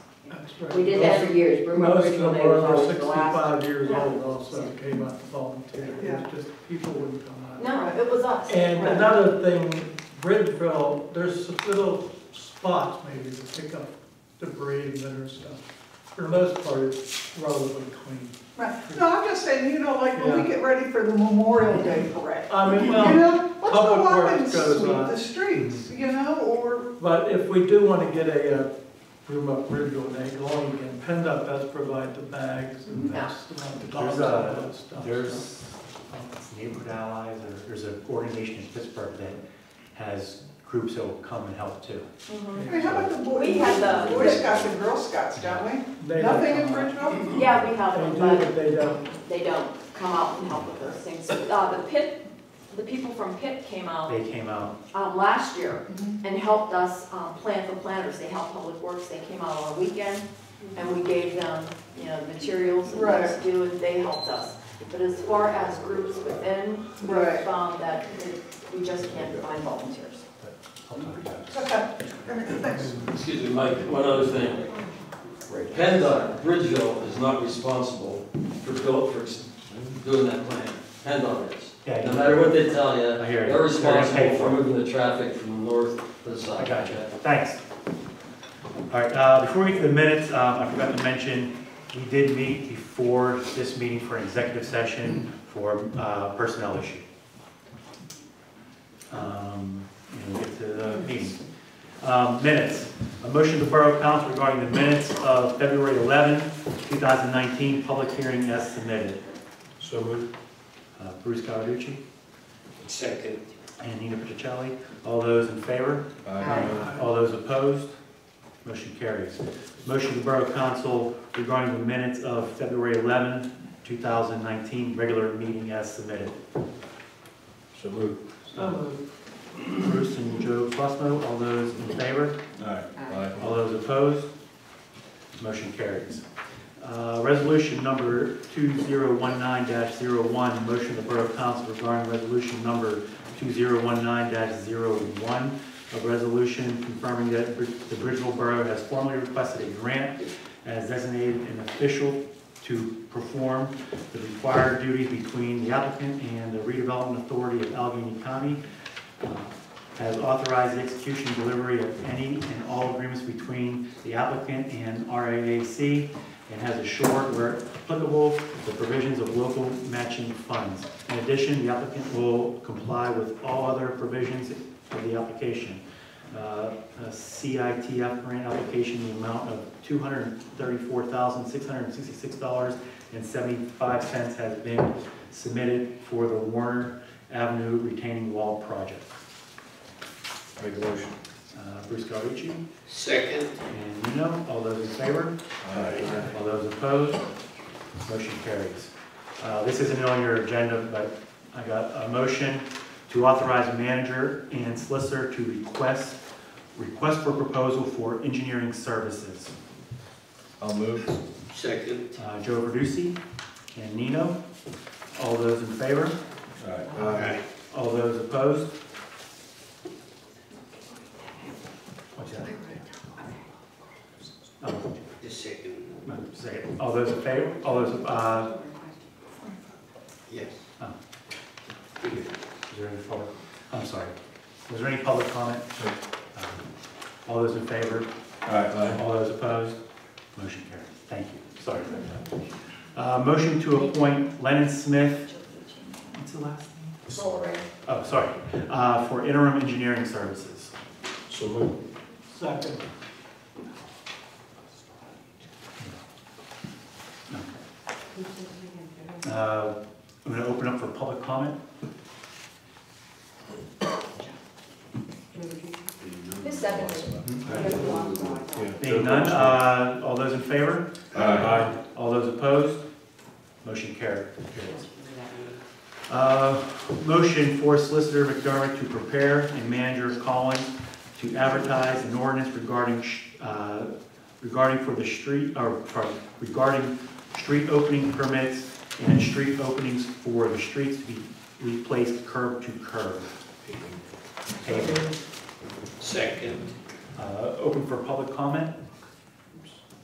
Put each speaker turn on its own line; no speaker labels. That's right.
We did that for years, Broome
Most of
Original
them
Day
are
was
over
always the last.
sixty-five years
Yeah.
old also that came out to volunteer,
Yeah.
it's just people wouldn't come out.
No, it was us.
And uh,
Right.
another thing, Bridgeville, there's little spots maybe to pick up debris and litter and stuff. For the most part, it's relatively clean.
Right, no, I'm just saying, you know, like, when we get ready for the Memorial Day parade,
I mean,
you
well,
know, let's go
Public
up
Works
and
goes
sweep
on.
the streets, you know, or,
but if we do want to get a, uh, room up Bridgeville Day going again, PennDOT does provide the bags and
Yeah.
vests and the dogs
There's
and all that
a,
stuff. so.
there's neighborhood allies, or there's an organization in Pittsburgh that has groups that will come and help too.
Mhm.
I mean, how about the Boy
We had the-
Boy Scouts and Girl Scouts, don't
They
we?
don't
Nothing in
come out.
Bridgeville?
Yeah, we have them,
They do,
but
but they don't.
they don't come out and help with those things. Uh, the Pitt, the people from Pitt came out,
They came out,
um, last year and helped us, um, plant the planters. They helped Public Works. They came out on a weekend and we gave them, you know, materials and things to do and they helped us. But as far as groups within, we
Right.
found that we just can't find volunteers.
I'll talk about it.
Okay, thanks.
Excuse me, Mike, one other thing. PennDOT, Bridgeville is not responsible for built, for doing that plan. PennDOT is. No
Yeah,
matter what they tell you,
I hear you.
they're responsible
They're gonna pay
for
for it.
moving the traffic from the north to the south.
I got you, thanks. All right, uh, before we get to the minutes, um, I forgot to mention, we did meet before this meeting for an executive session for uh, personnel issue. Um, And we'll get to the meeting. Um, Minutes, a motion to Borough Council regarding the minutes of February 11, 2019, public hearing as submitted.
So moved.
Uh, Bruce Cawerucci
Second.
and Nina Pacicelli, all those in favor?
Aye.
All those opposed? Motion carries. Motion to Borough Council regarding the minutes of February 11, 2019, regular meeting as submitted.
So moved.
Um,
Bruce and Joe Fusco, all those in favor?
Aye.
All those opposed? Motion carries. Uh, Resolution number 2019-01, motion of the Borough Council regarding resolution number 2019-01, a resolution confirming that Brid- the Bridgeville Borough has formally requested a grant as designated an official to perform the required duties between the applicant and the redevelopment authority of Allegheny County uh, has authorized the execution and delivery of any and all agreements between the applicant and RAAC, and has assured where applicable the provisions of local matching funds. In addition, the applicant will comply with all other provisions of the application. Uh, a CITF grant application, in the amount of $234,666.75 has been submitted for the Warner Avenue retaining wall project.
Make a motion.
Uh, Bruce Cawerucci
Second.
and Nino, all those in favor? All those opposed? Motion carries. Uh, This isn't on your agenda, but I got a motion to authorize manager and solicitor to request, request for proposal for engineering services.
I'll move. Second.
Uh, Joe Verducci and Nino, all those in favor?
Aye.
All those opposed? What's that? Oh,
Just second.
Say it. All those in favor, all those, uh,
Yes.
Oh. is there any public, I'm sorry, was there any public comment? Um, All those in favor,
Aye.
all those opposed, motion carries. Thank you, sorry for that. Uh, Motion to appoint Lennon Smith, what's the last name?
Sorry.
Oh, sorry, Uh, for interim engineering services.
So moved.
Second.
Uh, I'm going to open up for public comment.
Who's seconded?
Being none, uh, all those in favor?
Aye.
All those opposed? Motion carried. Uh, Motion for Solicitor McDermott to prepare and manager Collins to advertise an ordinance regarding, sh- uh, regarding for the street, or, pardon, regarding street opening permits and street openings for the streets to be replaced curb to curb. Paving.
Second.
Uh, Open for public comment?